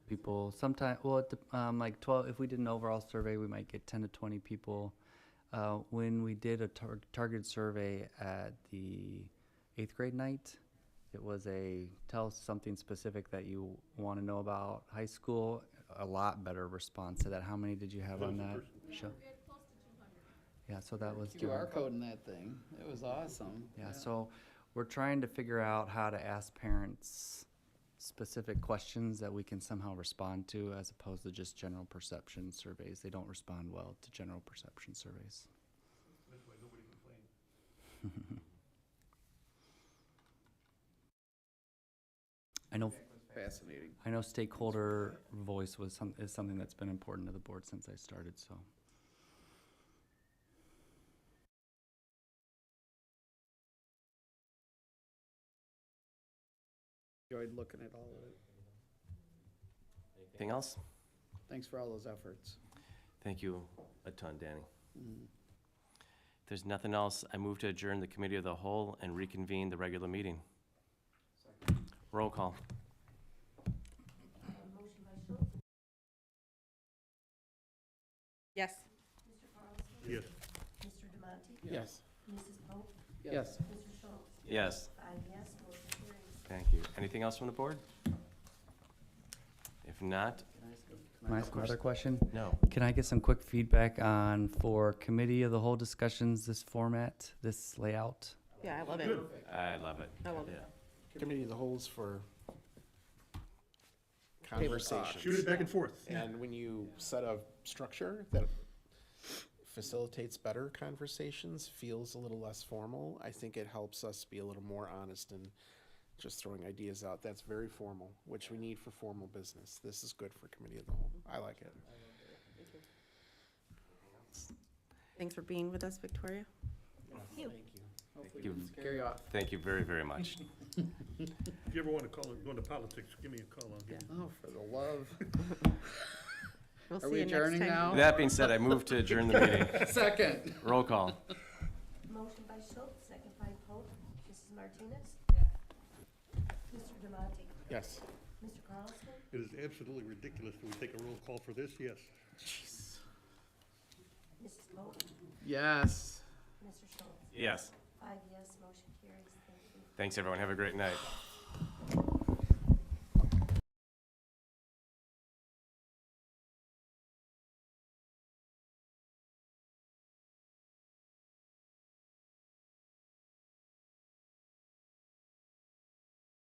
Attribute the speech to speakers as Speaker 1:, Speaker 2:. Speaker 1: people. Sometimes, well, it dep- um, like twelve. If we did an overall survey, we might get ten to twenty people. Uh, when we did a tar- targeted survey at the eighth grade night, it was a tell us something specific that you want to know about high school. A lot better response to that. How many did you have on that? Sure. Yeah, so that was doing-
Speaker 2: QR code in that thing. It was awesome.
Speaker 1: yeah, so we're trying to figure out how to ask parents specific questions that we can somehow respond to as opposed to just general perception surveys. They don't respond well to general perception surveys. I know,
Speaker 2: Fascinating.
Speaker 1: I know stakeholder voice was some, is something that's been important to the board since I started, so.
Speaker 2: Enjoyed looking at all of it.
Speaker 3: Anything else?
Speaker 2: Thanks for all those efforts.
Speaker 3: Thank you a ton, Danny.
Speaker 2: Mm.
Speaker 3: If there's nothing else, I move to adjourn the committee of the whole and reconvene the regular meeting. Roll call.
Speaker 4: Yes.
Speaker 2: Yes. Mrs. Pope? Yes.
Speaker 3: Yes. Thank you. Anything else from the board? If not,
Speaker 1: Can I ask another question?
Speaker 3: no.
Speaker 1: Can I get some quick feedback on for committee of the whole discussions, this format, this layout?
Speaker 4: Yeah, I love it.
Speaker 3: I love it.
Speaker 4: I love it.
Speaker 5: Committee of the holes for conversations.
Speaker 6: Shoot it back and forth.
Speaker 5: And when you set a structure that facilitates better conversations, feels a little less formal, I think it helps us be a little more honest and just throwing ideas out. That's very formal, which we need for formal business. This is good for committee of the whole. I like it.
Speaker 4: Thanks for being with us, Victoria.
Speaker 2: Hopefully we can scare you off.
Speaker 3: Thank you very, very much.
Speaker 6: If you ever want to call, go into politics, give me a call. I'll get-
Speaker 2: Oh, for the love.
Speaker 4: We'll
Speaker 2: Are
Speaker 4: see
Speaker 2: we
Speaker 4: you next
Speaker 2: adjourning
Speaker 4: time.
Speaker 2: now?
Speaker 3: With That being said, I move to adjourn the meeting.
Speaker 2: Second.
Speaker 3: Roll call.
Speaker 7: Motion by Schultz, second by Pope. Mrs. Martinez? Mr. Demonte?
Speaker 5: Yes.
Speaker 7: Mr. Carlson?
Speaker 6: It is absolutely ridiculous that we take a roll call for this, yes.
Speaker 7: Mrs. Pope?
Speaker 2: Yes.
Speaker 7: Mr. Schultz?
Speaker 3: Yes.
Speaker 7: Five yes, motion carries. Thank you.
Speaker 3: Thanks, everyone. Have a great night.